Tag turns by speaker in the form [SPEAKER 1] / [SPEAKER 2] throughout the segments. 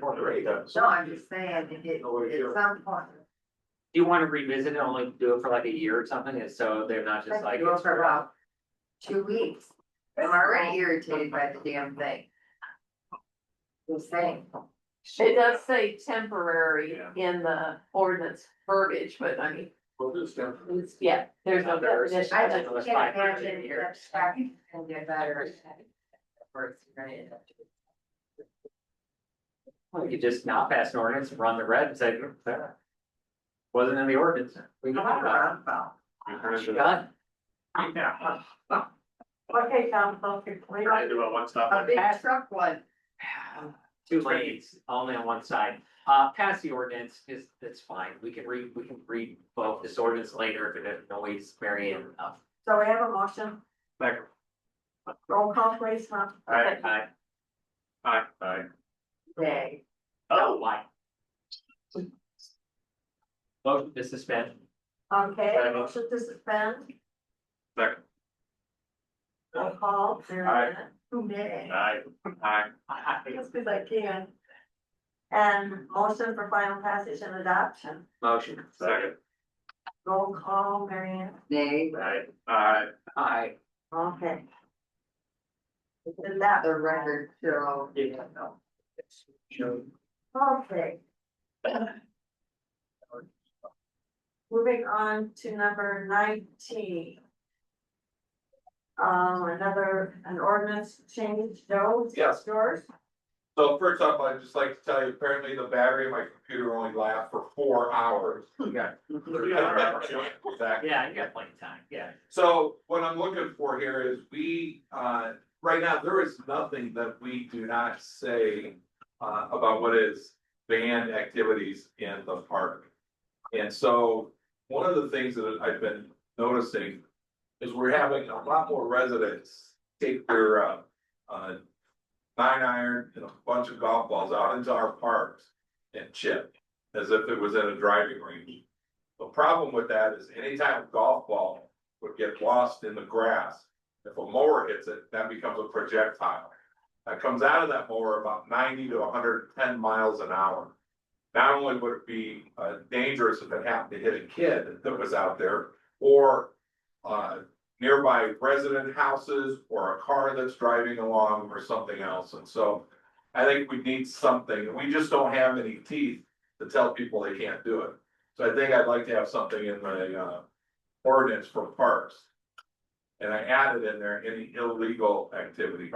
[SPEAKER 1] wondering.
[SPEAKER 2] No, I'm just saying, if it, at some point,
[SPEAKER 3] Do you wanna revisit and only do it for like a year or something, and so they're not just
[SPEAKER 2] I
[SPEAKER 3] like.
[SPEAKER 2] could go
[SPEAKER 3] it's
[SPEAKER 2] for about two weeks. I'm already irritated by the damn thing. Just saying.
[SPEAKER 4] It does say temporary in the ordinance verbiage, but I mean,
[SPEAKER 1] Well, this definitely.
[SPEAKER 4] it's, yeah, there's no
[SPEAKER 3] Others.
[SPEAKER 4] definition.
[SPEAKER 2] I
[SPEAKER 3] That's
[SPEAKER 2] just
[SPEAKER 3] almost
[SPEAKER 2] can't
[SPEAKER 3] five years
[SPEAKER 2] imagine
[SPEAKER 3] here.
[SPEAKER 2] that staffing can get better. Or it's gonna end up doing.
[SPEAKER 3] We could just not pass an ordinance, run the red and say, "Eh, wasn't in the ordinance. We can
[SPEAKER 2] I'm not
[SPEAKER 3] put it up."
[SPEAKER 2] around about.
[SPEAKER 3] Done.
[SPEAKER 1] Yeah,
[SPEAKER 4] Okay, council,
[SPEAKER 1] I do a one stop.
[SPEAKER 2] A big truck one,
[SPEAKER 3] Two lanes, only on one side. Uh, pass the ordinance is, that's fine. We can read, we can read both this ordinance later if it annoys Marion enough.
[SPEAKER 4] So we have a motion,
[SPEAKER 1] Second.
[SPEAKER 4] roll call please, huh?
[SPEAKER 1] Aye.
[SPEAKER 3] I
[SPEAKER 1] Aye. Aye.
[SPEAKER 2] day.
[SPEAKER 3] oh, why? Motion to suspend.
[SPEAKER 4] Okay,
[SPEAKER 1] Second.
[SPEAKER 4] motion to suspend,
[SPEAKER 1] Second.
[SPEAKER 4] roll call,
[SPEAKER 1] Aye.
[SPEAKER 4] there,
[SPEAKER 2] Who may?
[SPEAKER 1] Aye. Aye.
[SPEAKER 3] I- I-
[SPEAKER 4] just because I can. And motion for final passage and adoption,
[SPEAKER 3] Motion.
[SPEAKER 1] Second.
[SPEAKER 4] roll call, Marianne.
[SPEAKER 2] Nay.
[SPEAKER 1] Aye. Aye.
[SPEAKER 3] Aye.
[SPEAKER 4] Okay. And that,
[SPEAKER 2] The record show.
[SPEAKER 3] Yeah.
[SPEAKER 4] okay. Moving on to number nineteen. Um, another, an ordinance change, Joe, it's
[SPEAKER 5] Yes.
[SPEAKER 4] yours?
[SPEAKER 5] So first off, I'd just like to tell you, apparently the battery in my computer only lasts for four hours.
[SPEAKER 3] Yeah.
[SPEAKER 5] Exactly.
[SPEAKER 3] Yeah, you got plenty of time, yeah.
[SPEAKER 5] So what I'm looking for here is we, uh, right now, there is nothing that we do not say. Uh, about what is banned activities in the park. And so, one of the things that I've been noticing. Is we're having a lot more residents take their, uh, uh. Nine iron and a bunch of golf balls out into our parks and chip, as if it was in a driving range. The problem with that is anytime a golf ball would get lost in the grass. If a mower hits it, that becomes a projectile. That comes out of that mower about ninety to hundred and ten miles an hour. Not only would it be uh dangerous if it happened to hit a kid that was out there or. Uh nearby resident houses or a car that's driving along or something else, and so. I think we need something, we just don't have any teeth to tell people they can't do it. So I think I'd like to have something in the uh ordinance for parks. And I added in there any illegal activity.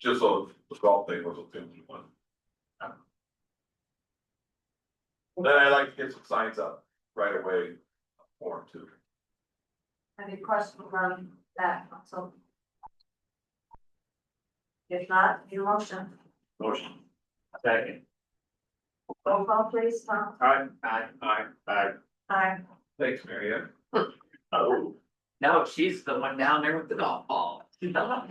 [SPEAKER 5] Just so the golf thing was a family one. Then I'd like to get some signs up right away for them too.
[SPEAKER 4] Any questions on that, council? If not, your motion,
[SPEAKER 1] Motion.
[SPEAKER 3] Second.
[SPEAKER 4] roll call please, Tom,
[SPEAKER 1] Aye.
[SPEAKER 3] Aye.
[SPEAKER 1] Aye. Aye.
[SPEAKER 4] aye.
[SPEAKER 5] Thanks, Mary Ann.
[SPEAKER 1] Oh.
[SPEAKER 3] No, she's the one down there with the golf ball.
[SPEAKER 4] All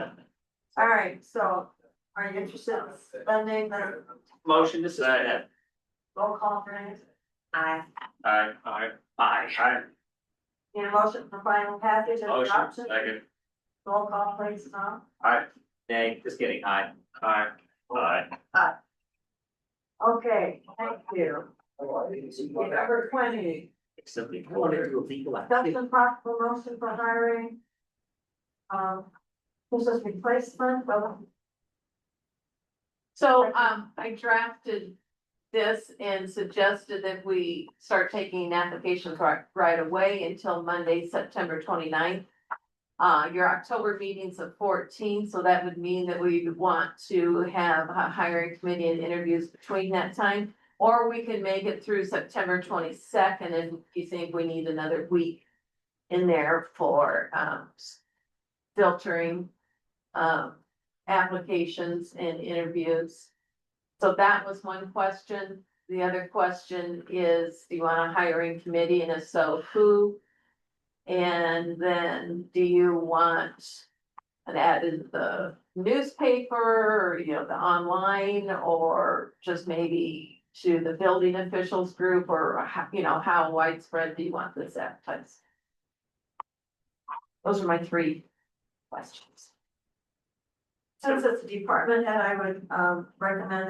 [SPEAKER 4] right, so are you interested in spending the
[SPEAKER 3] Motion to suspend.
[SPEAKER 4] roll call for it? Aye.
[SPEAKER 1] Aye. Aye.
[SPEAKER 3] Aye.
[SPEAKER 1] Aye.
[SPEAKER 4] Need a motion for final passage and
[SPEAKER 3] Motion,
[SPEAKER 4] adoption,
[SPEAKER 3] second.
[SPEAKER 4] roll call please, Tom.
[SPEAKER 3] Nay, just kidding, aye.
[SPEAKER 1] Aye. Aye.
[SPEAKER 4] Okay, thank you. Number twenty,
[SPEAKER 3] Something. I wanna do a legal action.
[SPEAKER 4] discussion possible motion for hiring. Um, this is replacement, but
[SPEAKER 6] So, um, I drafted this and suggested that we start taking applications right, right away until Monday, September 29th. Uh, your October meeting's at fourteen, so that would mean that we would want to have a hiring committee and interviews between that time. Or we can make it through September twenty-second, and if you think we need another week in there for, um, filtering, um, applications and interviews. So that was one question. The other question is, do you want a hiring committee and if so, who? And then do you want an ad in the newspaper or, you know, the online or just maybe to the building officials group or, how- you know, how widespread do you want this advertised? Those are my three questions. Since it's a department head, I would, um, recommend